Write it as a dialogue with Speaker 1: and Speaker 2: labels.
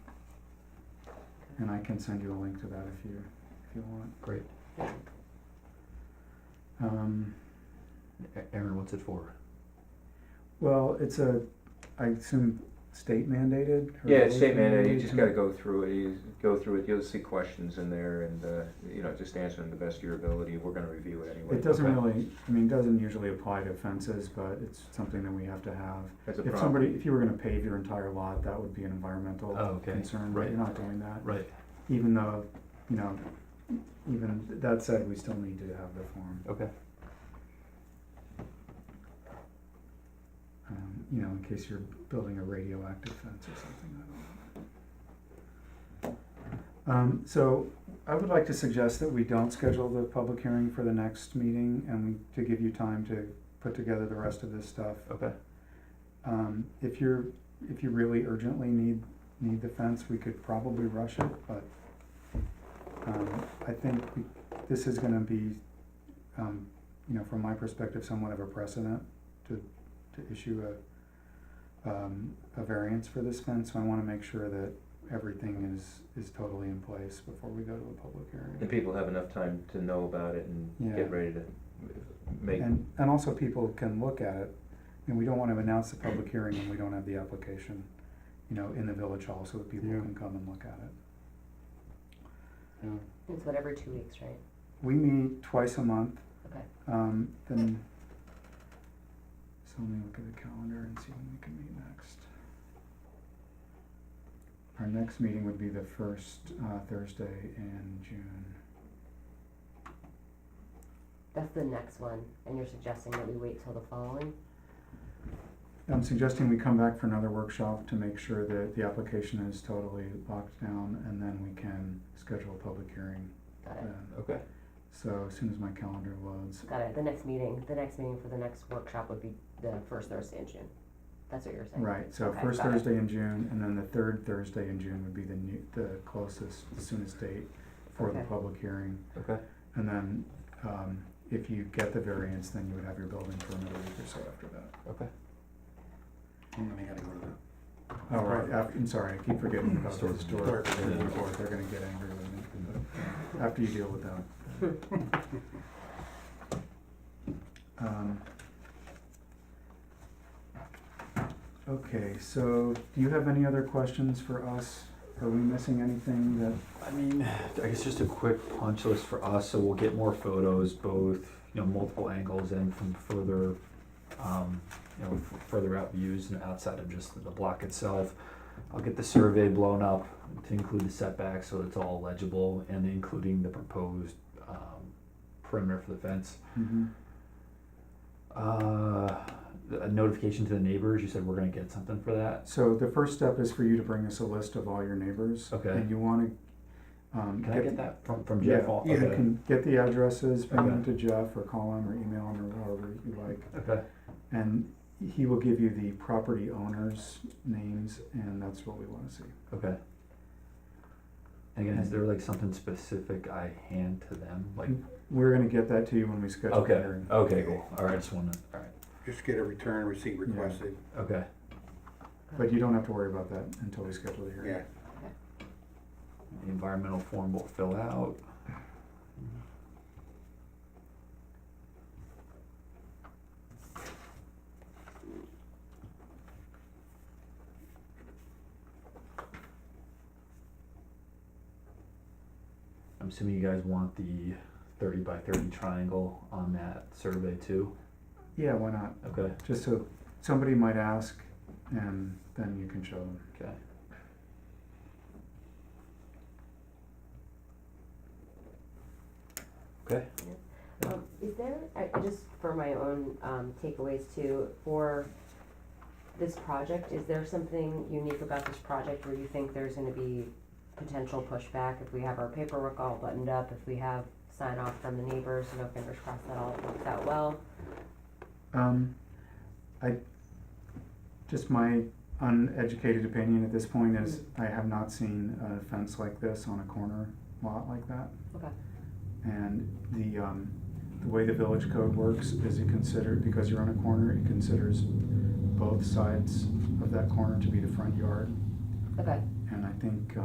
Speaker 1: and I can send you a link to that if you, if you want.
Speaker 2: Great.
Speaker 1: Um,
Speaker 2: A- Aaron, what's it for?
Speaker 1: well, it's a, I assume state mandated? or
Speaker 3: Yeah, it's state
Speaker 1: locally
Speaker 3: mandated, you just
Speaker 1: mandated?
Speaker 3: gotta go through it, you go through it, you'll see questions in there and, uh, you know, just answer them the best of your ability, we're gonna review it anyway.
Speaker 1: It doesn't
Speaker 2: Okay.
Speaker 1: really, I mean, it doesn't usually apply to fences, but it's something that we have to have.
Speaker 3: That's a
Speaker 1: If
Speaker 3: problem.
Speaker 1: somebody, if you were gonna pave your entire lot, that would be an environmental
Speaker 2: Oh, okay.
Speaker 1: concern, but
Speaker 2: Right.
Speaker 1: you're not doing that.
Speaker 2: Right.
Speaker 1: Even though, you know, even that said, we still need to have the form,
Speaker 2: Okay.
Speaker 1: um, you know, in case you're building a radioactive fence or something, I don't know. Um, so I would like to suggest that we don't schedule the public hearing for the next meeting and we, to give you time to put together the rest of this stuff.
Speaker 2: Okay.
Speaker 1: Um, if you're, if you really urgently need, need the fence, we could probably rush it, but, um, I think we, this is gonna be, um, you know, from my perspective, somewhat of a precedent to, to issue a, um, a variance for this fence, so I wanna make sure that everything is, is totally in place before we go to a public
Speaker 3: And
Speaker 1: hearing.
Speaker 3: people have enough time to know about it and
Speaker 1: Yeah.
Speaker 3: get ready to make,
Speaker 1: And, and also people can look at it, and we don't wanna announce the public hearing when we don't have the application, you know, in the village hall, so that people
Speaker 2: Yeah.
Speaker 1: can come and look at it.
Speaker 4: It's whatever two weeks, right?
Speaker 1: We meet twice a month,
Speaker 4: Okay.
Speaker 1: um, then, so let me look at the calendar and see when we can meet next. Our next meeting would be the first, uh, Thursday in June.
Speaker 4: That's the next one, and you're suggesting that we wait till the following?
Speaker 1: I'm suggesting we come back for another workshop to make sure that the application is totally locked down, and then we can schedule a public hearing
Speaker 4: Got it,
Speaker 1: then.
Speaker 2: Okay.
Speaker 1: So as soon as my calendar loads,
Speaker 4: got it, the next meeting, the next meeting for the next workshop would be the first Thursday in June. That's what you're saying?
Speaker 1: right, so
Speaker 4: Okay,
Speaker 1: first
Speaker 4: got it.
Speaker 1: Thursday in June, and then the third Thursday in June would be the new, the closest, soonest date for the
Speaker 4: Okay.
Speaker 1: public hearing.
Speaker 2: Okay.
Speaker 1: And then, um, if you get the variance, then you would have your building permit a week or so after that.
Speaker 2: Okay.
Speaker 5: And then I gotta go to the.
Speaker 1: Oh, right, af- I'm sorry, I keep forgetting about the
Speaker 2: Storage.
Speaker 1: historic, board, they're gonna get angry with me, but after you deal with them. Um, Okay, so do you have any other questions for us? Are we missing anything that,
Speaker 2: I mean, I guess just a quick punch list for us, so we'll get more photos, both, you know, multiple angles and from further, um, you know, f- further out views and outside of just the block itself. I'll get the survey blown up to include the setbacks, so it's all legible, and including the proposed, um, perimeter for the fence.
Speaker 1: mhm,
Speaker 2: Uh, a notification to the neighbors, you said we're gonna get something for that?
Speaker 1: so the first step is for you to bring us a list of all your neighbors.
Speaker 2: Okay.
Speaker 1: And you wanna, um.
Speaker 2: Can I get that from, from
Speaker 1: Yeah,
Speaker 2: Jeff? All-
Speaker 1: You
Speaker 2: okay.
Speaker 1: can get the addresses, bring them
Speaker 2: Okay.
Speaker 1: to Jeff, or call him, or email him, or however you like.
Speaker 2: Okay,
Speaker 1: And he will give you the property owners' names, and that's what we wanna see.
Speaker 2: okay. And Again, is there like something specific I hand to them,
Speaker 1: Mm.
Speaker 2: like,
Speaker 1: We're gonna get that to you when we schedule the
Speaker 2: okay,
Speaker 1: hearing.
Speaker 2: okay, cool, alright, I just wanna, alright,
Speaker 5: Just get a return receipt requested,
Speaker 2: okay,
Speaker 1: But you don't have to worry about that until we schedule the hearing.
Speaker 5: yeah.
Speaker 2: the environmental form will fill out. I'm assuming you guys want the thirty by thirty triangle on that survey too,
Speaker 1: Yeah, why not?
Speaker 2: okay,
Speaker 1: Just so, somebody might ask, and then you can show them.
Speaker 2: okay. Okay.
Speaker 4: Um, is there, I, I just, for my own, um, takeaways too, for this project, is there something unique about this project where you think there's gonna be potential pushback if we have our paperwork all buttoned up, if we have sign off from the neighbors, you know, fingers crossed that all works out well?
Speaker 1: Um, I, just my uneducated opinion at this point is, I have not seen a fence like this on a corner lot like that.
Speaker 4: Okay.
Speaker 1: And the, um, the way the village code works is it considered, because you're on a corner, it considers both sides of that corner to be the front yard.
Speaker 4: Okay.
Speaker 1: And I think, uh,